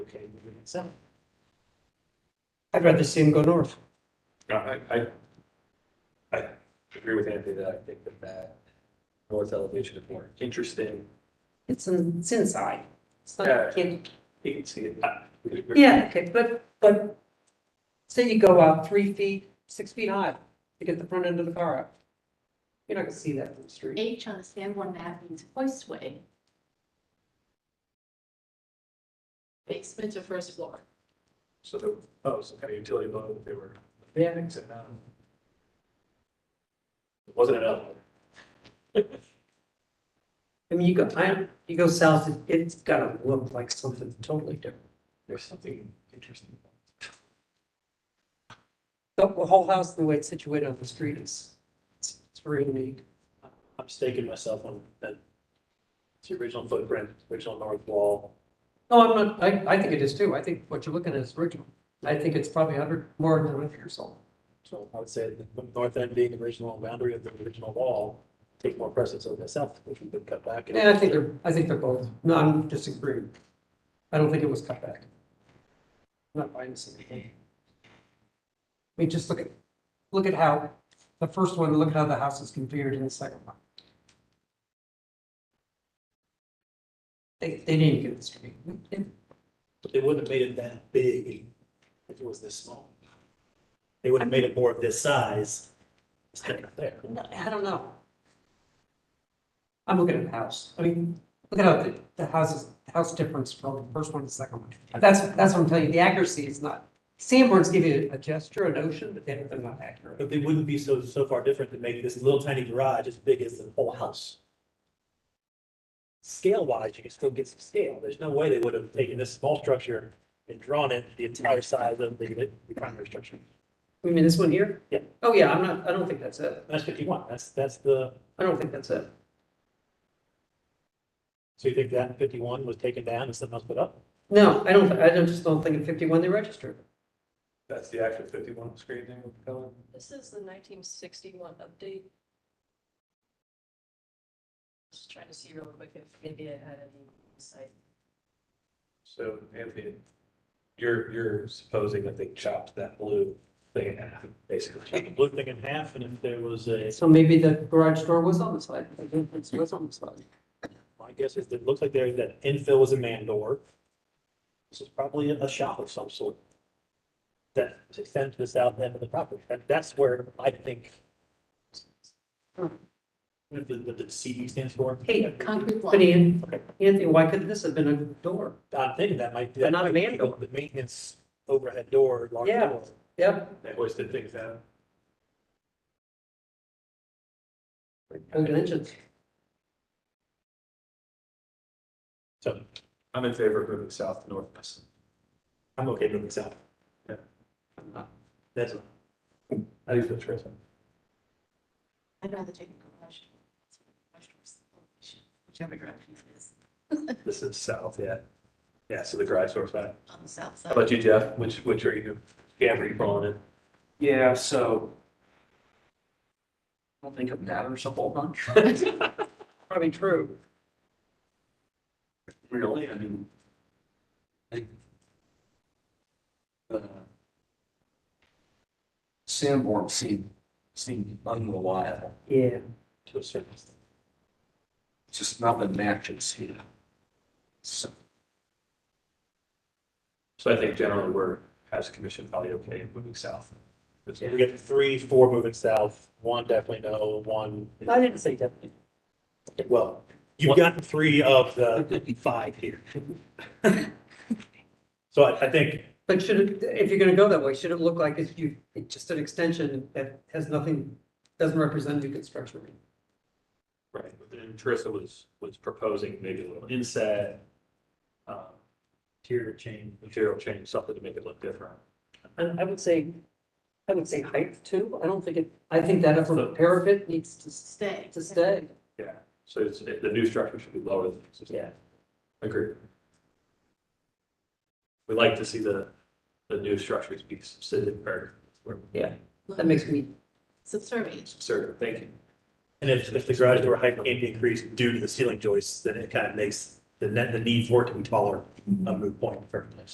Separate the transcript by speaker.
Speaker 1: okay with it itself. I'd rather see them go north.
Speaker 2: No, I, I, I agree with Anthony that I think that that north elevation is more interesting.
Speaker 1: It's, in- it's inside. It's
Speaker 2: Yeah.
Speaker 1: not, kid-
Speaker 2: You can see it. Ah, we- we-
Speaker 1: yeah, okay, but, but say you go out three feet, six feet high to get the front end of the car up. You're not gonna see that from the street.
Speaker 3: H on the Sanborn map means hoistway. Basement to first floor.
Speaker 2: So the, oh, some kind of utility load that they were
Speaker 1: Yeah.
Speaker 2: fixing now. It wasn't an elevator.
Speaker 1: I mean, you go, I, you go south, it- it's gotta look like something totally different.
Speaker 2: There's something interesting.
Speaker 1: The the whole house, the way it's situated on the street is, it's it's really neat.
Speaker 2: I'm staking myself on that. It's the original footprint, original north wall.
Speaker 1: No, I'm not, I, I think it is too. I think what you're looking at is original. I think it's probably hundred, more than hundred years old.
Speaker 2: So I would say the north end being the original boundary of the original wall, take more precedence over the south, which we could cut back.
Speaker 1: Yeah, I think they're, I think they're both, no, I'm disagreeing. I don't think it was cut back. I'm Not buying this anything. I mean, just look at, look at how, the first one, look at how the house is configured in the second one. They, they didn't get this right.
Speaker 2: But they wouldn't have made it that big if it was this small. They would have made it more of this size. instead of there.
Speaker 1: No, I don't know. I'm looking at the house. I mean, look at how the, the houses, the house difference from the first one to the second one. That's, that's what I'm telling you. The accuracy is not, Sanborn's give you a gesture, a notion, but they're, they're not accurate.
Speaker 4: But they wouldn't be so, so far different to make this little tiny garage as big as the whole house. Scale wise, you can still get some scale. There's no way they would have taken this small structure and drawn it the entire size of the, the primary structure.
Speaker 1: You mean this one here?
Speaker 4: Yeah.
Speaker 1: Oh, yeah, I'm not, I don't think that's it.
Speaker 4: That's fifty-one. That's, that's the,
Speaker 1: I don't think that's it.
Speaker 4: so you think that fifty-one was taken down and something else put up?
Speaker 1: No, I don't, I don't, just don't think in fifty-one they registered.
Speaker 2: That's the actual fifty-one screen name with the color.
Speaker 3: This is the nineteen sixty-one update. Just trying to see real quick if maybe I had any insight.
Speaker 2: So Anthony, you're, you're supposing that they chopped that blue thing in half,
Speaker 4: Took
Speaker 2: basically.
Speaker 4: the blue thing in half and if there was a,
Speaker 1: So maybe the garage door was on the side. The entrance was on the side.
Speaker 4: my guess is that it looks like there, that infill was a man door. This is probably a shop of some sort. That extends to the south end of the property. That, that's where I think. What the, what the CD stands for?
Speaker 1: Hey,
Speaker 3: Concrete
Speaker 1: but
Speaker 3: block.
Speaker 1: An- Anthony, why could this have been a door?
Speaker 4: I'm thinking that might.
Speaker 1: But not a man door.
Speaker 4: The maintenance overhead door, large
Speaker 1: Yeah.
Speaker 4: door.
Speaker 1: Yep,
Speaker 2: They hoisted things down.
Speaker 1: Old engines.
Speaker 4: So
Speaker 2: I'm in favor of moving south to northwest.
Speaker 4: I'm okay moving south.
Speaker 2: Yeah.
Speaker 4: That's,
Speaker 2: I think that's right.
Speaker 3: I'd rather take a garage. Garage door's the location, Whichever direction it is,
Speaker 2: This is south, yeah. Yeah, so the garage door's back.
Speaker 3: on the south
Speaker 2: How
Speaker 3: side.
Speaker 2: about you, Jeff? Which, which are you, yeah, were you calling it?
Speaker 5: Yeah, so. I don't think it matters a whole bunch,
Speaker 1: Probably true.
Speaker 5: really, I mean. I think, uh, Sanborn seemed, seemed unreliable,
Speaker 1: Yeah.
Speaker 4: to a certain extent.
Speaker 5: just nothing matches here. So,
Speaker 2: So I think generally we're, as a commission, probably okay moving south. Because
Speaker 4: We got three, four moving south, one definitely no, one.
Speaker 1: I didn't say definitely.
Speaker 4: Well, you've gotten three of the five here. So I, I think,
Speaker 1: But should it, if you're gonna go that way, should it look like it's you, it's just an extension that has nothing, doesn't represent new construction?
Speaker 2: Right, but then Teresa was, was proposing maybe a little inset, um,
Speaker 4: tier change,
Speaker 2: material change, something to make it look different.
Speaker 1: And I would say, I would say height too. I don't think it, I think that upper parapet needs to, s-
Speaker 3: Stay.
Speaker 1: to stay.
Speaker 2: Yeah, so it's, the new structure should be lower than. existing.
Speaker 1: Yeah.
Speaker 2: Agreed. We like to see the, the new structures be subsided or, or
Speaker 1: That makes me,
Speaker 3: Subservient.
Speaker 2: subservient, thank you.
Speaker 4: And if, if the garage door height can't be increased due to the ceiling joists, then it kind of makes the net, the need for it to be taller a moot point in the first place.